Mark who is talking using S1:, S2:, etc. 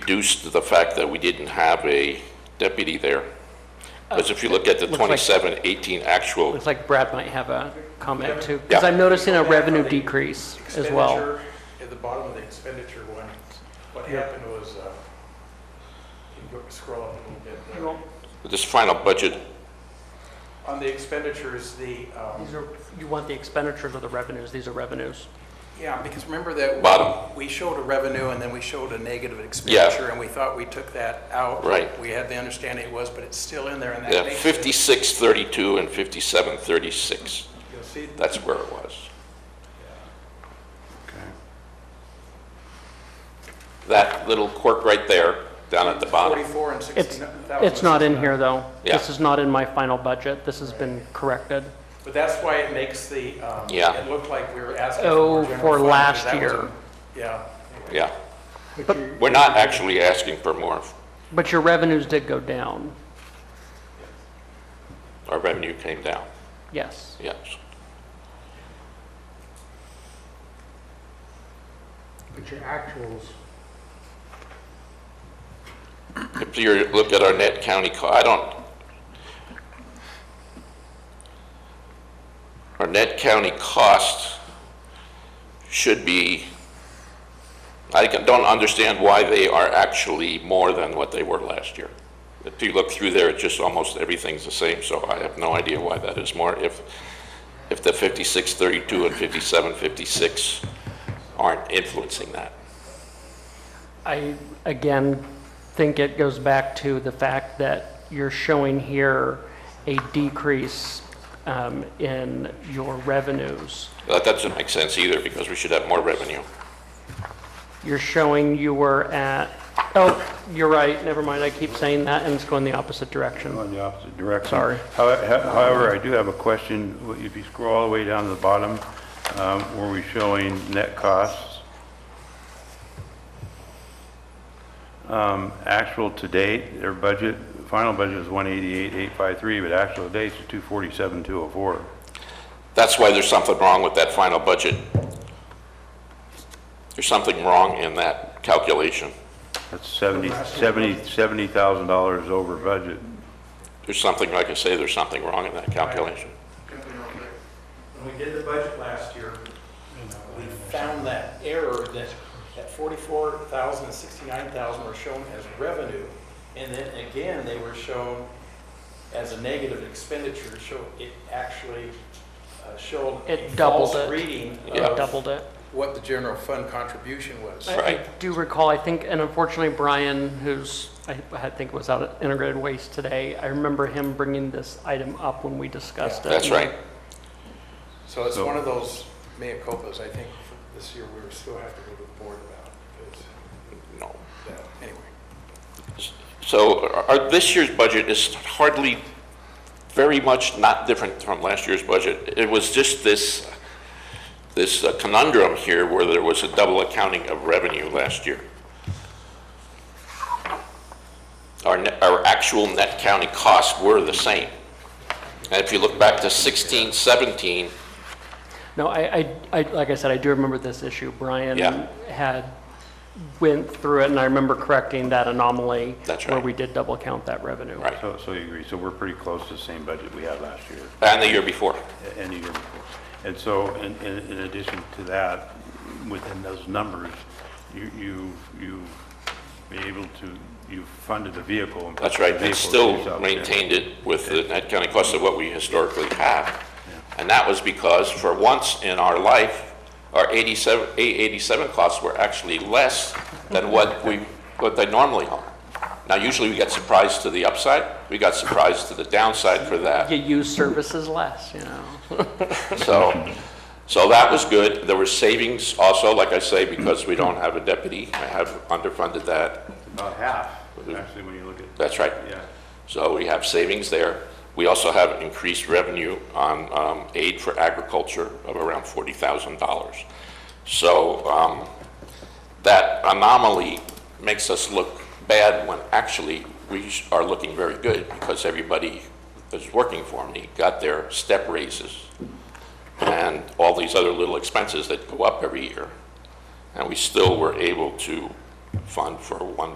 S1: reduced the fact that we didn't have a deputy there. Because if you look at the
S2: Looks like-
S1: 27, 18 actual,
S2: Looks Uh, like Brad might have a comment too,
S1: Yeah.
S2: because I'm noticing a revenue decrease as well.
S3: Expenditure, At the bottom of the expenditure one, what happened was, uh, you go- scroll up a little bit. there.
S1: this final budget,
S3: On the expenditures, the, um,
S2: These are, you want the expenditures or the revenues? These are revenues.
S3: yeah, because remember that. we-
S1: Bottom.
S3: We showed a revenue and then we showed a negative expenditure and we thought we took that out.
S1: Right.
S3: We had the understanding it was, but it's still in there and that
S1: yeah,
S3: makes it-
S1: 5632 uh, and 5736,
S3: You'll see,
S1: that's where it was. That little quirk right there, down at the bottom.
S3: 44 and
S2: It's,
S3: 69. that was
S2: it's not in here though.
S1: Yeah.
S2: This is not in my final budget. This has been corrected.
S3: But that's why it makes the, um,
S1: Yeah.
S3: it looked like we were asking.
S2: Oh,
S3: more general
S2: for
S3: fund, because
S2: last
S3: that was
S2: year.
S3: a- Yeah.
S1: Yeah. We're not actually asking for more.
S2: But your revenues did go down,
S1: Our revenue came down,
S2: yes.
S1: yes.
S4: But your actuals,
S1: If you look at our net county co, I don't, our net county cost should be, I can- don't understand why they are actually more than what they were last year. If you look through there, it's just almost everything's the same, so I have no idea why that is more. If, if the 5632 and 5756 aren't influencing that.
S2: I, again, think it goes back to the fact that you're showing here a decrease um, in your revenues.
S1: That doesn't make sense either, because we should have more revenue.
S2: You're showing you were at, oh, you're right, never mind, I keep saying that, and it's going the opposite direction.
S5: Going the opposite direction.
S2: Sorry.
S5: How- how- However, I do have a question. If you scroll all the way down to the bottom, um, where we're showing net costs, um, actual to date, their budget, final budget is 188,853, but actual to date is 247,204.
S1: That's why there's something wrong with that final budget. There's something wrong in that calculation.
S5: That's 70 70 $70,000 over budget.
S1: There's something, like I say, there's something wrong in that calculation.
S3: When we did the budget last year, we found that error that, that 44,000 and 69,000 were shown as revenue. And then again, they were shown as a negative expenditure, so it actually uh, showed a
S2: It doubled
S3: false
S2: it.
S3: reading
S1: Yeah.
S2: I
S3: of
S2: doubled it.
S3: what the general fund contribution was.
S2: I- I
S1: Right.
S2: do recall, I think, and unfortunately Brian, who's, I I think was out at Integrated Waste today, I remember him bringing this item up when we discussed it.
S1: That's right.
S3: So it's
S5: So-
S3: one of those mea culpas, I think, for this year, we were still have to go to the board about, because,
S1: No.
S3: that- anyway.
S1: So our, this year's budget is hardly, very much not different from last year's budget. It was just this, this uh, conundrum here where there was a double accounting of revenue last year. Our, ne- our actual net county costs were the same. And if you look back to 16, 17,
S2: No, I, I, I, like I said, I do remember this issue. Brian
S1: Yeah.
S2: had, went through it, and I remember correcting that anomaly.
S1: That's
S2: Where
S1: right.
S2: we did double count that revenue.
S1: Right.
S5: So so you agree, so we're pretty close to the same budget we had last year.
S1: and the year before,
S5: and the year before. And so, in, in in addition to that, within those numbers, you, you, you've been able to, you've funded the vehicle. and
S1: That's right,
S5: the
S1: they
S5: vehicle
S1: still
S5: is out there.
S1: maintained it with the net county cost of what we historically have. And that was because for once in our life, our 87, 887 costs were actually less than what we, what they normally are. Now, usually we get surprised to the upside, we got surprised to the downside for that.
S2: You use services less, you know?
S1: So, so that was good. There were savings also, like I say, because we don't have a deputy. I have underfunded that.
S5: About half, actually, when you look at,
S1: That's right.
S5: yeah.
S1: So we have savings there. We also have increased revenue on um, aid for agriculture of around $40,000. So um, that anomaly makes us look bad when actually we sh- are looking very good because everybody that's working for me got their step raises and all these other little expenses that go up every year. And we still were able to fund for one